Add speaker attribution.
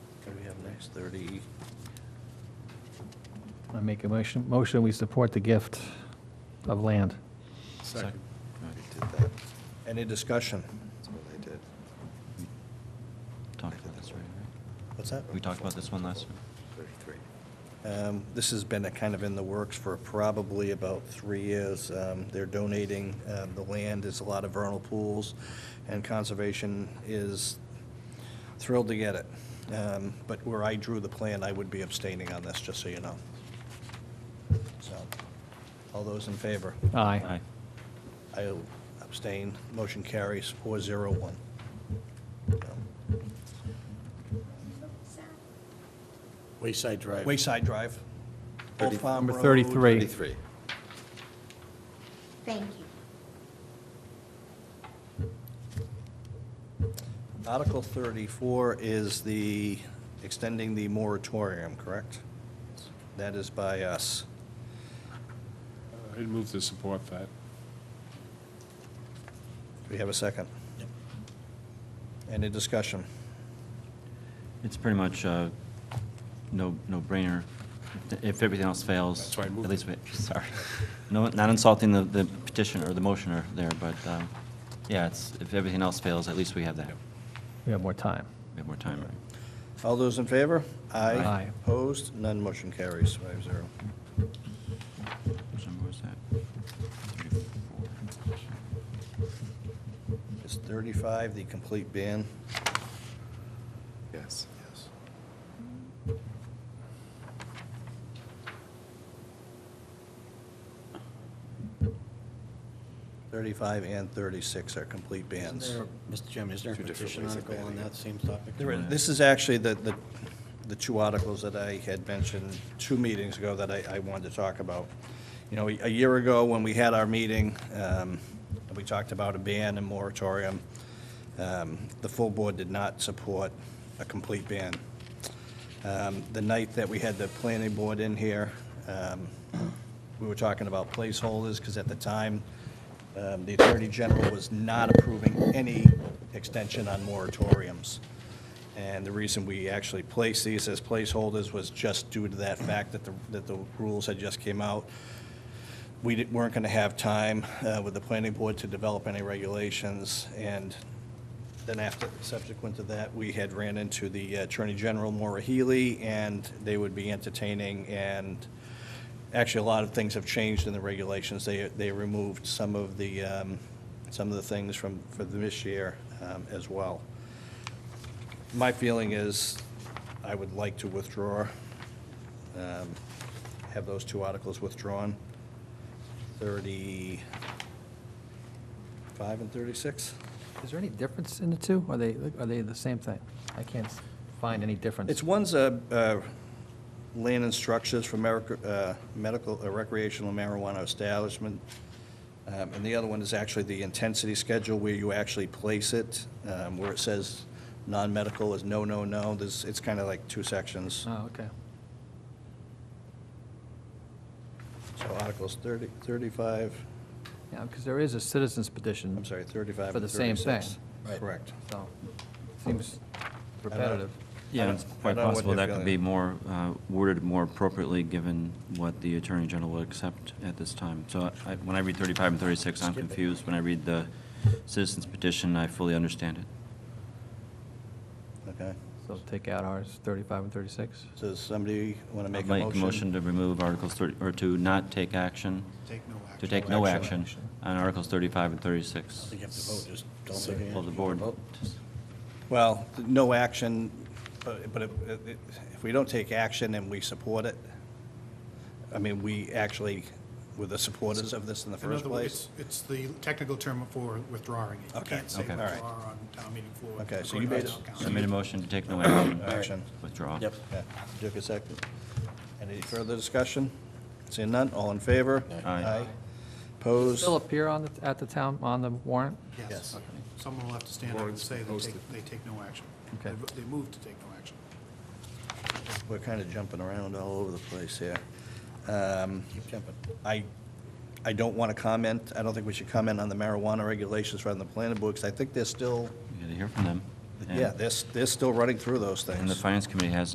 Speaker 1: six thirty.
Speaker 2: I make a motion, motion, we support the gift of land.
Speaker 3: Second.
Speaker 1: Any discussion?
Speaker 4: That's what I did.
Speaker 3: Talked about this already, right?
Speaker 1: What's that?
Speaker 3: We talked about this one last time.
Speaker 4: Thirty-three.
Speaker 1: Um, This has been a kind of in the works for probably about three years. Um, They're donating uh, the land, there's a lot of vernal pools, and conservation is thrilled to get it. Um, But where I drew the plan, I would be abstaining on this, just so you know. So, all those in favor?
Speaker 2: Aye.
Speaker 1: I abstain. Motion carries four zero one.
Speaker 5: Wayside Drive.
Speaker 1: Wayside Drive, Old
Speaker 4: Thirty-
Speaker 1: Farm
Speaker 2: Number
Speaker 1: Road.
Speaker 2: 33.
Speaker 4: Thirty-three.
Speaker 6: Thank you.
Speaker 1: Article 34 is the, extending the moratorium, correct? That is by us.
Speaker 7: I'd move to support that.
Speaker 1: Do we have a second? Any discussion?
Speaker 3: It's pretty much uh no, no-brainer. If everything else fails.
Speaker 7: That's why I moved
Speaker 3: At least, we- sorry. No, not insulting the the petitioner or the motioner there, but, um, yeah, it's, if everything else fails, at least we have that.
Speaker 2: We have more time.
Speaker 3: We have more time, right?
Speaker 1: All those in favor?
Speaker 2: Aye.
Speaker 1: Opposed? None motion carries, five zero.
Speaker 3: Which number was that? 34.
Speaker 1: Is 35 the complete ban?
Speaker 4: Yes. Yes.
Speaker 1: Thirty-five and thirty-six are complete
Speaker 5: Isn't
Speaker 1: bans.
Speaker 5: there- Mr. Chairman, is there a
Speaker 4: Two different
Speaker 5: petition
Speaker 4: ways of
Speaker 5: article on
Speaker 4: banning it.
Speaker 5: that same topic?
Speaker 1: There is- This is actually the, the, the two articles that I had mentioned two meetings ago that I, I wanted to talk about. You know, a year ago, when we had our meeting, um, we talked about a ban and moratorium. Um, The full board did not support a complete ban. Um, The night that we had the planning board in here, um, we were talking about placeholders, because at the time, um, the Attorney General was not approving any extension on moratoriums. And the reason we actually placed these as placeholders was just due to that fact that the, that the rules had just came out. We didn't- weren't going to have time uh, with the planning board to develop any regulations, and then after, subsequent to that, we had ran into the Attorney General, Maura Healy, and they would be entertaining, and actually, a lot of things have changed in the regulations. They, they removed some of the, um, some of the things from, for this year um, as well. My feeling is, I would like to withdraw, um, have those two articles withdrawn, 35 and 36.
Speaker 2: Is there any difference in the two? Are they, are they the same thing? I can't s- find any difference.
Speaker 1: It's one's uh, uh, land and structures for meric- uh, medical, uh, recreational marijuana establishment, Um, and the other one is actually the intensity schedule where you actually place it, um, where it says non-medical is no, no, no. There's, it's kind of like two sections.
Speaker 2: Oh, okay.
Speaker 1: So Articles 30, 35,
Speaker 2: Yeah, because there is a citizen's petition.
Speaker 1: I'm sorry, 35
Speaker 2: For
Speaker 1: and
Speaker 2: the same thing.
Speaker 1: 36.
Speaker 5: Right.
Speaker 1: Correct.
Speaker 2: So, seems repetitive.
Speaker 1: I
Speaker 3: Yeah,
Speaker 1: don't-
Speaker 3: it's
Speaker 1: I
Speaker 3: quite
Speaker 1: don't know what
Speaker 3: possible
Speaker 1: they're
Speaker 3: that could
Speaker 1: feeling.
Speaker 3: be more uh, worded more appropriately, given what the Attorney General will accept at this time. So I- when I read 35 and 36, I'm confused. When I read the citizens petition, I fully understand it.
Speaker 1: Okay.
Speaker 2: So take out ours, 35 and 36.
Speaker 1: Does somebody want to
Speaker 3: I'll
Speaker 1: make a motion?
Speaker 3: Make a motion to remove Articles 30, or to not take action,
Speaker 5: Take no action.
Speaker 3: to take no action on Articles 35 and 36.
Speaker 5: You have to vote, just don't take any
Speaker 3: Well, the
Speaker 5: action.
Speaker 3: board,
Speaker 1: Well, no action, but but if if we don't take action and we support it, I mean, we actually were the supporters of this in the
Speaker 8: In
Speaker 1: first
Speaker 8: other
Speaker 1: place.
Speaker 8: words, it's the technical term for withdrawing it. You
Speaker 1: Okay,
Speaker 8: can't say
Speaker 3: okay.
Speaker 8: withdraw
Speaker 1: All right.
Speaker 8: on town meeting floor.
Speaker 1: Okay, so you
Speaker 8: according to
Speaker 1: made
Speaker 8: town
Speaker 1: it-
Speaker 8: council.
Speaker 3: I made a motion to take no action.
Speaker 1: Action.
Speaker 3: Withdraw.
Speaker 5: Yep.
Speaker 1: Yeah, Took a second. Any further discussion? Seeing none, all in favor?
Speaker 3: Aye.
Speaker 1: Opposed?
Speaker 2: Still appear on, the at the town, on the warrant?
Speaker 1: Yes.
Speaker 8: Yes. Someone will have to stand up and
Speaker 7: Warrants
Speaker 8: say they
Speaker 7: posted.
Speaker 8: take, they take no action.
Speaker 2: Okay.
Speaker 8: They vo- They move to take no action.
Speaker 1: We're kind of jumping around all over the place here. Um,
Speaker 5: Keep jumping.
Speaker 1: I, I don't want to comment, I don't think we should comment on the marijuana regulations rather than the planning board, 'cause I think they're still,
Speaker 3: You gotta hear from them. And-
Speaker 1: yeah, they're, they're still running through those things.
Speaker 3: And the Finance Committee has